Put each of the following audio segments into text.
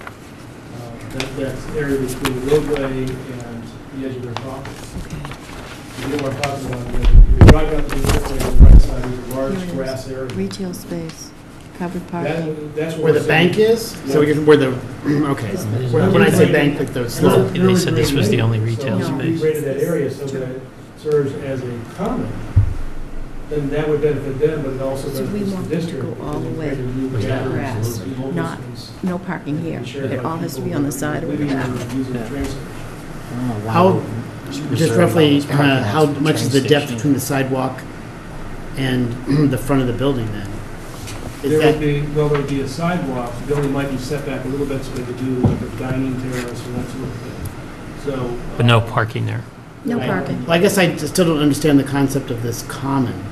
Uh, that, that area between the roadway and the edge of their property. You know what I'm talking about, you know, you're driving up to the roadway, on the right side is a Here it large is. grass area. Retail space, covered parking. That, that's Where the bank is? So we can, where the, okay. When when I say bank, like the slope. They said this was the only retail we space. rated that area so that it serves as a common, then that would benefit them, but it also So we benefits want the them to district. go all because the it way created new Was that gatherings, grass, new homeless not ones, No parking here. and shared It by all has to people be on the who are side or the living back. and using the Yeah. transit. How, just roughly, uh, how much is the depth between the sidewalk and the front of the building then? Is There would that, be, well, there'd be a sidewalk, the building might be set back a little bit so they could do like a dining terrace and that sort of thing, so. uh, But no parking there. No I- parking. well, I guess I just still don't understand the concept of this common,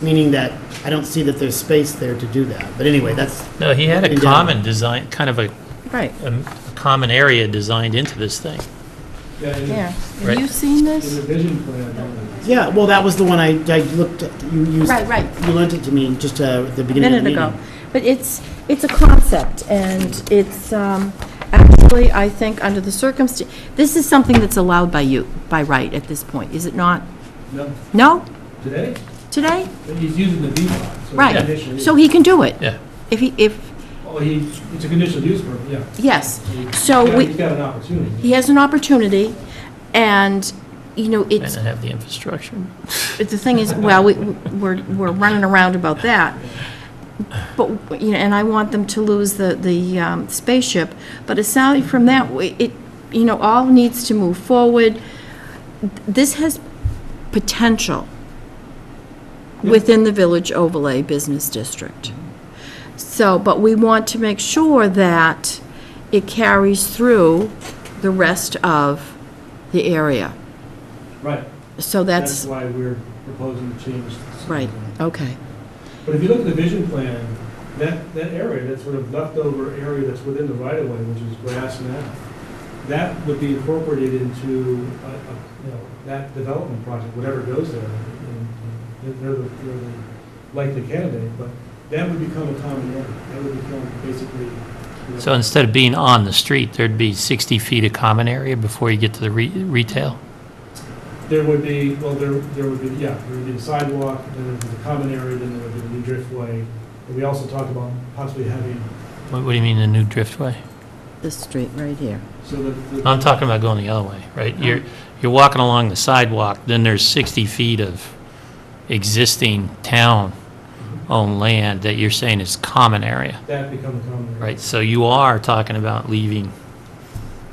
meaning that I don't see that there's space there to do that. But anyway, that's, No, he had a Yeah. common design, kind of a, Right, a common area designed into this thing. Yeah, in there. the- Have Right. you seen in this? the vision plan, uh, yeah, well, that was the one I, I looked, at. you used, Right, right. you lent it to me just uh, at the A beginning of minute the meeting. ago. But it's, it's a concept, and it's, um, actually, I think, under the circumstance, this is something that's allowed by you, by right at this point, is it not? no, No? today, Today? but he's using the V lot. so it's Right. conditional So use. he can do it? Yeah. If he, if, Well, he, it's a conditional use permit, yeah. yes. He's So got- we- He's got an opportunity. He has an opportunity, and, you know, And it's, it have the infrastructure. But The thing is, well, we- we're, we're running around about that, but, you know, and I want them to lose the, the um, spaceship, but aside from that, we- it, you know, all needs to move forward. This has potential within the Village Overlay Business District. So, but we want to make sure that it carries through the rest of the area. Right. So That's that's, why we're proposing to change. the site Right. plan. okay. But if you look at the vision plan, that, that area, that sort of leftover area that's within the right of way, which is grass now, that would be incorporated into, a- a, you know, that development project, whatever goes there. and- and They're the, they're the likely candidate, but that would become a common area. That would become basically. you know, So instead of being on the street, there'd be 60 feet of common area before you get to the re- retail? There would be, well, there, there would be, yeah, there would be the sidewalk, then there would be the common area, then there would be the new driftway. And we also talked about possibly having, What what do you mean, the new driftway? This street right here. so that. the- I'm talking about going the other way, right? You're, you're walking along the sidewalk, then there's 60 feet of existing town-owned land that you're saying is common area, That become a common area. right? So you are talking about leaving,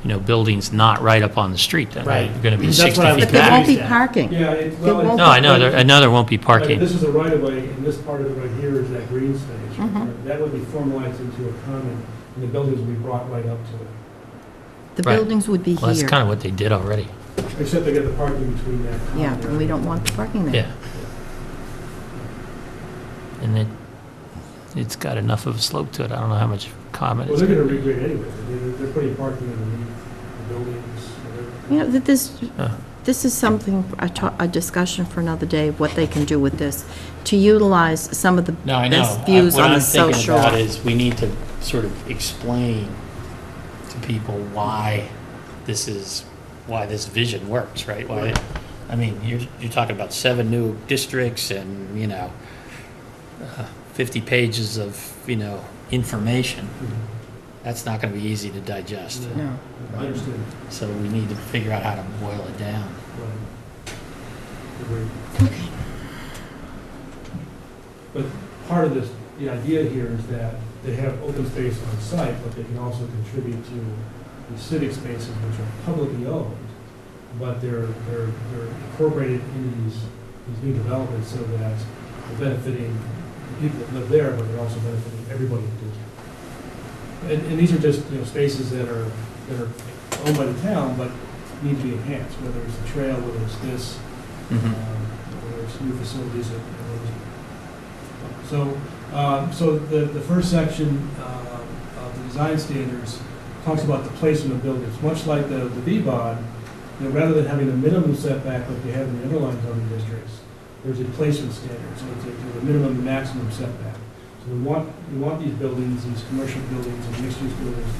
you know, buildings not right up on the street then. Right. You're going to be That's 60 what I was feet But there back. won't be Yeah. parking. Yeah, it, well. won't it- No, I know, there- another won't be like, parking. This is the right of way, and this part of it right here is that green space. right Mhm. there. That would be formalized into a common, and the buildings would be brought right up to The Right. buildings would be Well, that's here. kind of what they did already. it. Except they get the parking between that common Yeah, and we area. don't want the parking there. Yeah. And it, it's got enough of a slope to it, I don't know how much comment Well, it's they're gonna regrade anyway. They're, they're putting parking underneath the buildings. whatever. You know, that this, Uh. this is something, a to- a discussion for another day, what they can do with this, to utilize some of the No, I know. best views I- on the social. What I'm thinking about is, we need to sort of explain to people why this is, why this vision works, right? Why, Right. I mean, you're, you're talking about seven new districts and, you know, uh, 50 pages of, you know, information. Mm-hmm. That's not going to be easy to digest. No. I understand. So we need to figure out how to boil it down. Right. Agreed. But part of this, the idea here is that they have open space on site, but they can also contribute to the civic spaces which are publicly owned, but they're, they're, they're incorporated into these, these new developments so that they're benefiting the people that live there, but they're also benefiting everybody in the district. And, and these are just, you know, spaces that are, that are owned by the town, but need to be enhanced, whether it's the trail, whether it's this, Hmm. Mm-hmm. um, whether it's new facilities. that- that was- So, um, so the, the first section um, of the design standards talks about the placement of buildings, much like the, the VBOD, you know, rather than having a minimum setback like you have in the underlying zoning districts, there's a placement standard, so it's a, there's a minimum and maximum setback. So we want, we want these buildings, these commercial buildings and mixed-use buildings